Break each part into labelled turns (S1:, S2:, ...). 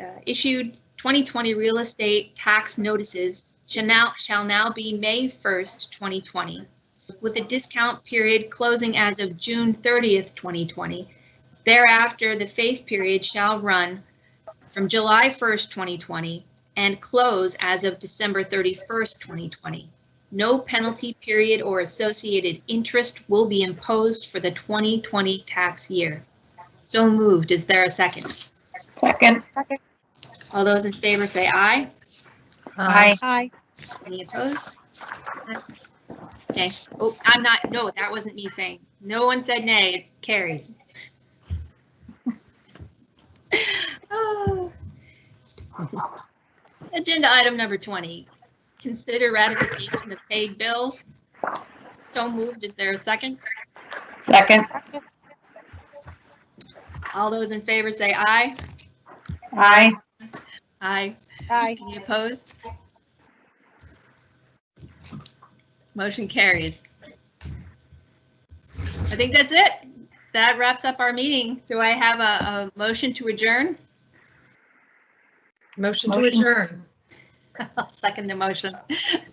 S1: uh, issued 2020 real estate tax notices shall now, shall now be May 1st, 2020, with a discount period closing as of June 30th, 2020. Thereafter, the face period shall run from July 1st, 2020 and close as of December 31st, 2020. No penalty period or associated interest will be imposed for the 2020 tax year. So moved. Is there a second?
S2: Second.
S1: All those in favor say aye.
S2: Aye.
S3: Aye.
S1: Any opposed? Okay. Oh, I'm not, no, that wasn't me saying. No one said nay. It carries. Oh. Agenda item number 20, consider ratification of paid bills. So moved. Is there a second?
S2: Second.
S1: All those in favor say aye.
S2: Aye.
S1: Aye.
S3: Aye.
S1: Any opposed? Motion carries. I think that's it. That wraps up our meeting. Do I have a, a motion to adjourn?
S4: Motion to
S2: Motion.
S4: adjourn.
S1: I'll second the motion.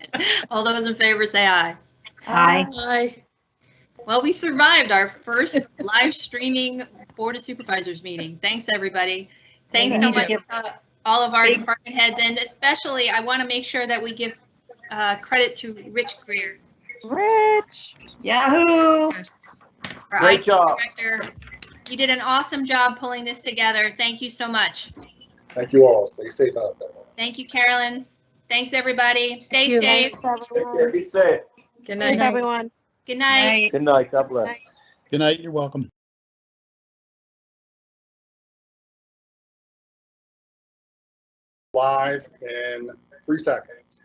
S1: All those in favor say aye.
S2: Aye.
S4: Aye.
S1: Well, we survived our first live streaming Board of Supervisors meeting. Thanks, everybody. Thanks so
S3: Thank
S1: much
S3: you.
S1: to all of our department heads, and especially, I want to make sure that we give uh, credit to Rich Greer,
S3: Rich.
S2: Yahoo.
S4: Yes.
S1: our
S5: Great
S1: IT
S5: job.
S1: director. You did an awesome job pulling this together. Thank you so much.
S5: Thank you all. Stay safe out there.
S1: Thank you, Carolyn. Thanks, everybody. Stay
S3: you.
S1: safe.
S3: Everyone.
S5: Be safe.
S4: Good
S3: Thanks,
S4: night.
S3: everyone.
S1: Good night.
S5: Good night. God bless.
S3: Night.
S6: Good night. You're welcome.
S5: Live in three seconds.